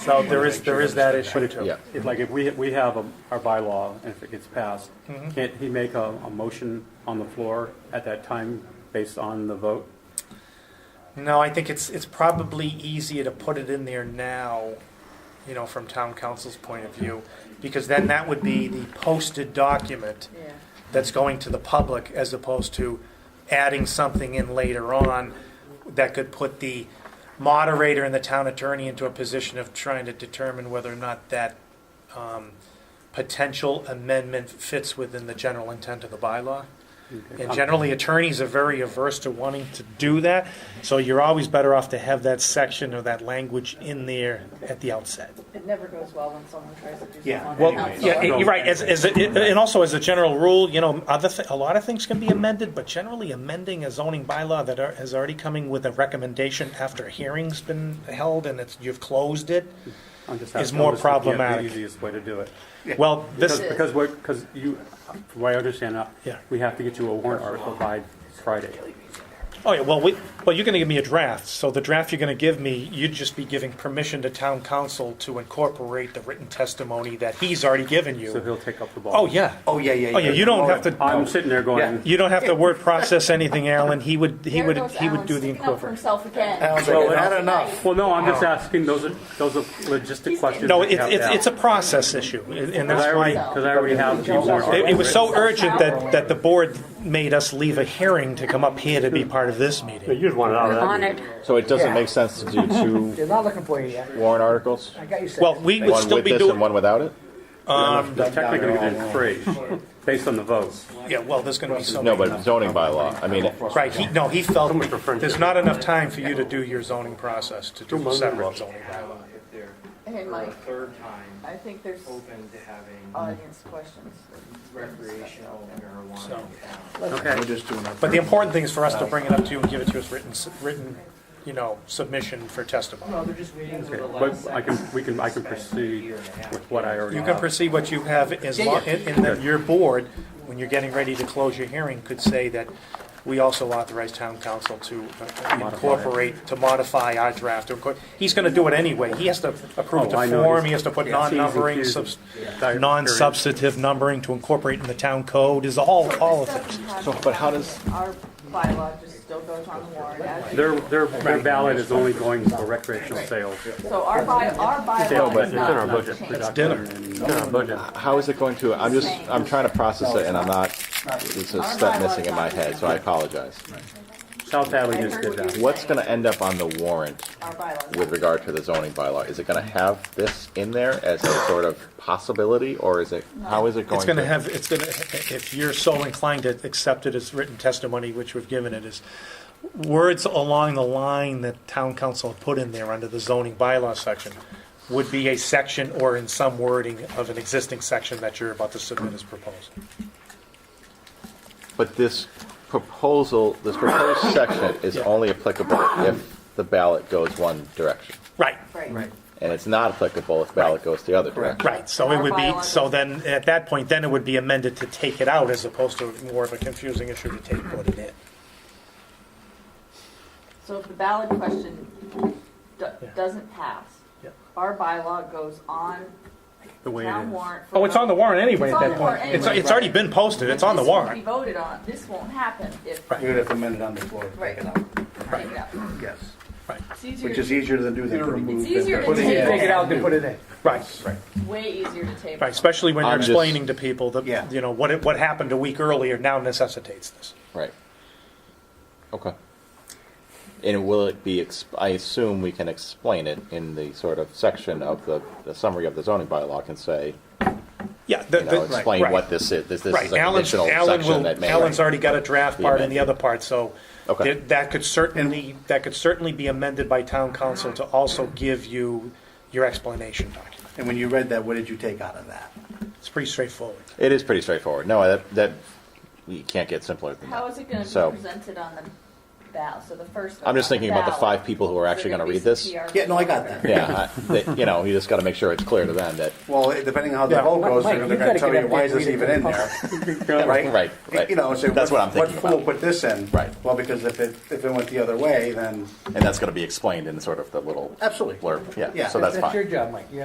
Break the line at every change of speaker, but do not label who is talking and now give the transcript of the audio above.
So there is, there is that issue too.
Yeah.
If, Like if we, we have a- our bylaw, and if it gets passed,
Mm-hmm.
can't he make a, a motion on the floor at that time based on the vote?
No, I think it's, it's probably easier to put it in there now, you know, from town council's point of view, because then that would be the posted document
Yeah.
that's going to the public as opposed to adding something in later on that could put the moderator and the town attorney into a position of trying to determine whether or not that um, potential amendment fits within the general intent of the bylaw. And generally, attorneys are very averse to wanting to do that, so you're always better off to have that section or that language in there at the outset.
It never goes well when someone tries to do something.
Yeah,
on
well,
council.
yeah, you're right, as, as, and also as a general rule, you know, other, thi- a lot of things can be amended, but generally amending a zoning bylaw that are, is already coming with a recommendation after a hearing's been held and it's, you've closed it,
I'm just asking,
Is more
I'm just looking at
problematic.
The easiest way to do it.
well,
Because,
this,
because we're, because you, from what I understand, uh,
Yeah.
we have to get you a warrant article by Friday.
oh yeah, well, we, well, you're gonna give me a draft, so the draft you're gonna give me, you'd just be giving permission to town council to incorporate the written testimony that he's already given
So
you.
he'll take up the ball.
Oh, yeah,
Oh, yeah, yeah, yeah.
oh yeah, you don't have
I'm
to,
sitting there going,
you don't have to word process anything, Alan, he would, he
There
would,
goes
he would
Alan
do the
sticking up for
incorporate.
Himself again.
Alan's like,
Well,
"Not
that's
enough."
nice.
well, no, I'm just asking, those are, those are logistic questions.
No,
that
it's,
have
it's,
to
it's a process issue, and and
Because I
that's
already-
why,
because I already have the warrant
it, it
article.
was so urgent that, that the board made us leave a hearing to come up here to be part of this meeting.
You'd want it out of that. meeting.
So it doesn't make sense to do two
They're not looking for you yet.
warrant articles?
I got you set.
Well, we would
One
still
with
be
this and
doing,
one without it?
It's technically going to be three, based on the votes.
yeah, well, there's gonna be so
No,
many.
but zoning bylaw, I mean,
Right, he, no, he felt,
Someone preferred
there's
to-
not enough time for you to do your zoning process, to do
months.
separate zoning bylaw.
uh, if they're
Hey,
for a
Mike, Oh.
third time
I think there's
open to having
audience questions.
recreational marijuana
So-
in town.
we're just doing our.
But the important thing is for us to bring it up to you and give it to us written, s- written, you know, submission for testimony.
No, they're just waiting for the last
But I can, we can, I can proceed with what I already
You can
have.
proceed what you have as long, and and then your board, when you're getting ready to close your hearing, could say that we also authorize town council to uh, incorporate, to modify our draft. Of course, He's gonna do it anyway. He has to approve
Oh, I
the
know.
form, he has to put
Yeah.
non-numbering,
T's and
subs-
Q's. Yeah.
non-substantive numbering to incorporate in the town code, is all, all of it.
So, but how does-
Our bylaw just still goes on the warrant as.
Their, their, their ballot is only going for recreational sales.
So our by, our bylaw
but it's
is
in our
not
budget.
changed.
It's
dinner.
budget.
How is it going to, I'm just, I'm trying to process it and I'm not, it's a step missing in my head, so I apologize.
South Hadley just did that.
What's gonna end up on the warrant
Our bylaw.
with regard to the zoning bylaw? Is it gonna have this in there as a sort of possibility, or is it, how is it going
It's
to?
gonna have, it's gonna, if you're so inclined to accept it as written testimony, which we've given it, is words along the line that town council put in there under the zoning bylaw section would be a section or in some wording of an existing section that you're about to submit as proposed.
But this proposal, this proposed section is only applicable if the ballot goes one direction.
Right,
Right.
And it's not applicable if ballot goes the other direction.
right, so it would be, so then, at that point, then it would be amended to take it out as opposed to more of a confusing issue to take what it in.
So if the ballot question do- doesn't pass,
Yeah.
our bylaw goes on
The way it
town
is.
warrant. for
Oh, it's on the warrant anyway at
It's on
that
the
point.
warrant
It's,
anyway.
it's already been posted, it's on the
This won't be
warrant.
voted on, this won't happen if.
Right.
You're gonna have to amend it on the floor. to
Right.
take it out.
Take it out.
Yes,
It's easier,
which is easier than do the
it's
three.
easier to
Put it in.
Take
take
it
it,
out and put it in.
Right, right.
way easier to take.
Right, especially when you're
I'm just-
explaining to people
Yeah.
that, you know, what, it- what happened a week earlier now necessitates this.
Right. Okay. And will it be, ex- I assume we can explain it in the sort of section of the, the summary of the zoning bylaw can say,
Yeah.
you know, explain what this is, this, this
Right,
is a
Alan,
conditional
Alan
section that
will,
may.
Alan's already got a draft
Be
part and the
amended.
other part, so
Okay.
that that could certainly, that could certainly be amended by town council to also give you your explanation document.
And when you read that, what did you take out of that?
It's pretty straightforward.
It is pretty straightforward. No, that, that, you can't get simpler than that.
How is it gonna be
So-
presented on the ballot, so the first.
I'm just
one on
thinking about the
ballot,
five people who are
so
actually
there
going to read
could be
this.
CPR
Yeah, no, I got that.
Yeah, I, that, you know, you just got to make sure it's clear to them that
Well, it- depending on how the vote
Mike,
goes, they're they're
you
gonna
gotta
tell
get
you,
up
why
there
is
and
this
read it
even
to
in
the
there?
Right, right, right.
You know, say,
That's what I'm
what, what
thinking
fool
about.
put this in?
Right.
Well, because if it, if it went the other way, then
and that's going to be explained in sort of the little
Absolutely.
blurb. Yeah,
Yeah.
so that's fine.
That's your job, Mike. You